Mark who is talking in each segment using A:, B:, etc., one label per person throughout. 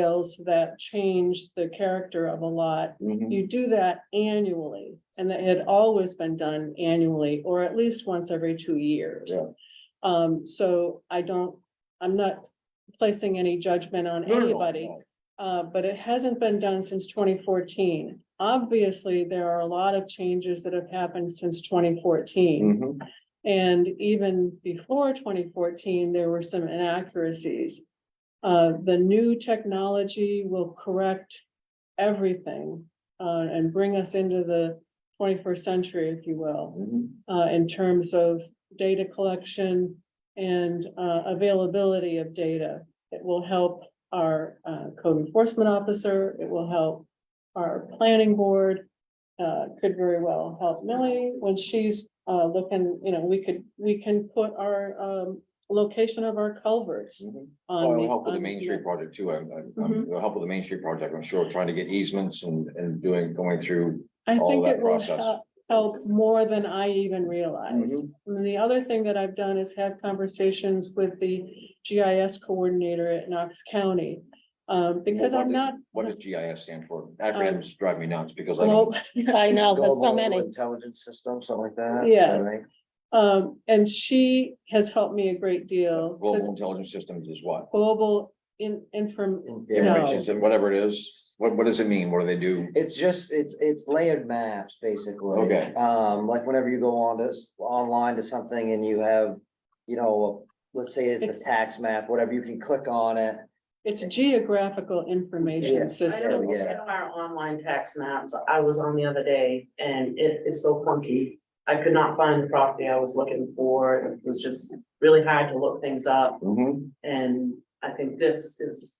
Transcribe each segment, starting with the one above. A: sales that change the character of a lot.
B: Mhm.
A: You do that annually, and that had always been done annually, or at least once every two years.
B: Yeah.
A: Um, so I don't, I'm not placing any judgment on
B: No, no, no,
A: anybody.
B: no.
A: Uh, but it hasn't been done since twenty fourteen. Obviously, there are a lot of changes that have happened since twenty fourteen.
B: Mhm.
A: And even before twenty fourteen, there were some inaccuracies. Uh, the new technology will correct everything, uh, and bring us into the twenty-first century, if you will
B: Mhm.
A: uh, in terms of data collection and, uh, availability of data. It will help our, uh, code enforcement officer. It will help our planning board. Uh, could very well help Millie when she's, uh, looking, you know, we could, we can put our, um, location of our culverts
B: Mhm.
A: on.
B: Well, it'll
A: the-
B: help with the
A: on
B: Main Street project too. I'm, I'm,
A: Mhm.
B: I'm- it'll help with the Main Street project, I'm sure, trying to get easements and, and doing, going through.
A: I
B: all
A: think
B: that
A: it will
B: process.
A: help, help more than I even
B: Mm-hmm.
A: realized. And the other thing that I've done is have conversations with the GIS coordinator at Knox County. Um, because
B: What
A: I'm
B: did-
A: not,
B: What does GIS stand for? Acronyms drive me nuts because I.
A: well,
B: don't-
C: I know, that's so
B: Global
C: many.
B: Intelligence system, something like that.
A: Yeah.
B: right?
A: um, and she has helped me a great deal. 'cause
B: Global intelligence systems is what?
A: Global in, inform,
B: Information, system, whatever it is, what, what does it mean? What do they do?
D: It's just, it's, it's layered maps, basically.
B: Okay.
D: Um, like whenever you go on to, s- online to something and you have, you know, let's say it's
A: It's-
D: a tax map, whatever, you can click on it.
A: it's geographical
D: Yeah.
A: information
E: I
A: system.
E: don't look at our online tax maps. I was on the other day and it is so funky. I could not find the property I was looking for. It was just really hard to look things up
B: Mhm.
E: and I think this is.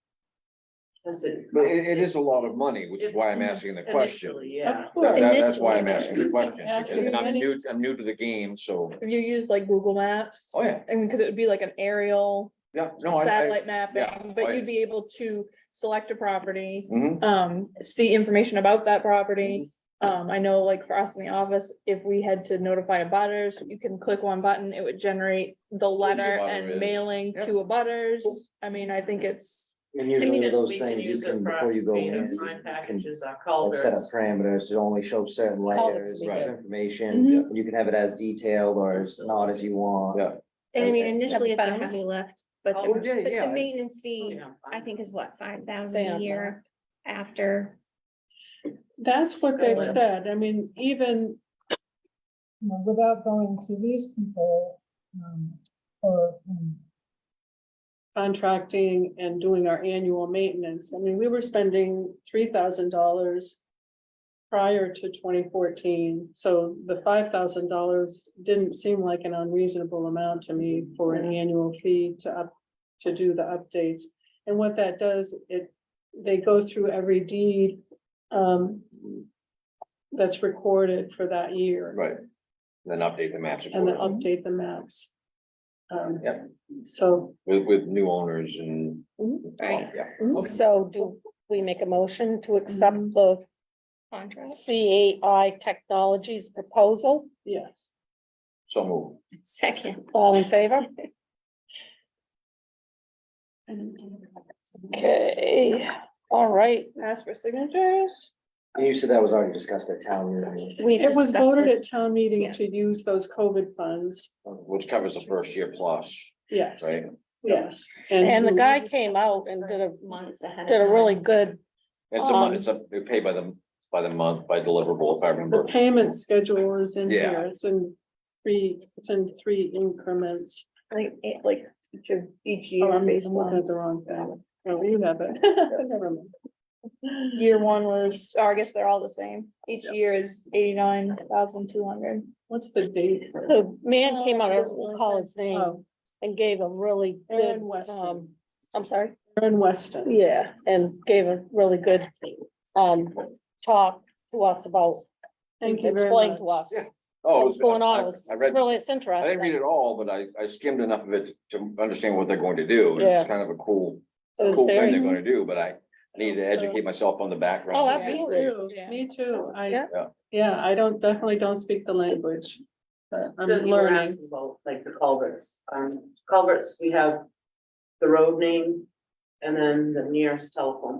E: That's it.
B: But it, it is a lot of money, which is why I'm asking the question.
E: Initially, yeah.
A: Of
B: That-
A: course,
B: that- that's why I'm asking the question,
A: Actually,
B: because I'm
C: many-
B: new, I'm new to the game, so,
C: If you use like Google Maps,
B: oh, yeah,
C: I mean, because it would be like an aerial
B: yeah, no, I, I.
C: satellite mapping,
B: oh,
C: but
B: yeah.
C: you'd be able to select a property,
B: Mhm.
C: um, see information about that property.
B: Mm-hmm.
C: Um, I know like for us in the office, if we had to notify a butters, you can click one button, it would generate the letter
B: abutter is.
C: and mailing
B: Yep.
C: to a butters. I mean, I think it's,
D: And
E: I mean,
D: usually
E: it-
D: those
E: we can
D: things you
E: use it
D: can,
E: for
D: before you go in,
E: data
D: you
E: sign
D: can
E: Packages are
D: like, set up
E: culverts.
D: parameters to only show certain
C: Colors
D: layers
C: we
D: of
B: get.
A: Mm-hmm.
D: information. You can have it as detailed or as not as you want.
B: Yeah.
F: And I mean,
B: Okay.
F: initially it's a
C: Fine.
F: heavy lift, but
E: Oh,
F: the,
B: yeah,
F: but
B: yeah.
F: the maintenance fee,
E: Yeah,
F: I think is what, five
C: Stay
F: thousand a
C: on
F: year after.
A: that's what they've
C: So-
A: said. I mean, even
G: you know, without going to these people, um, or, um,
A: contracting and doing our annual maintenance. I mean, we were spending three thousand dollars prior to twenty fourteen, so the five thousand dollars didn't seem like an unreasonable amount to me for an annual fee to up, to do the updates. And what that does, it, they go through every deed um that's recorded for that year
B: Right. Then update the maps
A: and then
B: accordingly
A: update the maps. Um,
B: Yep.
A: So
B: with, with new owners and.
C: Mhm.
H: Mm-hmm,
B: Oh, yeah.
H: So do we make a motion to accept
C: Mm-hmm.
H: the
F: Contract.
H: CAI Technologies proposal?
A: yes.
B: So move.
F: Second.
H: All in favor? Okay, all right.
C: ask for signatures.
D: And you said that was already discussed at town meeting.
F: We
A: It was
F: discussed
A: voted
F: it.
A: at town meeting
F: Yeah.
A: to use those COVID funds,
B: Which covers the first year plus,
A: yes,
B: right?
A: yes.
H: And the
A: to-
H: guy came out and did a,
F: Months ahead. of
H: did a really
F: time.
H: good,
B: It's a, mon-
H: Um,
B: it's a, they pay by the, by the month, by deliverable, if I
A: The
B: remember.
A: payment schedule is in
B: Yeah.
A: here, it's in three, it's in three increments.
C: Like, it- like each of each
A: Oh,
C: year Um,
A: I'm I'm
C: based
A: looking
C: on,
A: at the wrong thing. Oh, you have it. Never mind.
C: year one was, or I guess they're all the same. Each year is eighty-nine thousand two hundred.
A: What's the date? for it?
H: the man came out, I don't recall his name,
A: Oh,
H: and gave a really good,
A: Aaron Weston,
H: um, I'm sorry?
A: Aaron Weston.
H: Yeah, and gave a really good, um, talk to us about,
A: Thank you very
H: explained to
A: much.
H: us
B: Yeah. Oh, it
H: what's
B: was-
H: going on.
B: I-
H: It was
B: I read,
H: really, it's
B: I didn't read
H: interesting.
B: it all, but I, I skimmed enough of it to understand what they're going to do. and It's
H: Yeah.
B: kind of a cool,
H: It was
B: cool thing
H: very-
B: they're gonna do, but I need to
C: So-
B: educate myself on the background.
H: Oh,
B: of it.
A: Me
H: absolutely.
A: too,
C: Yeah.
A: Me too, I,
H: Yeah.
A: yeah, I don't, definitely don't speak the language, but I'm
E: Then you were
A: learning.
E: asking about, Like the culverts, um, culverts, we have the road name and then the nearest telephone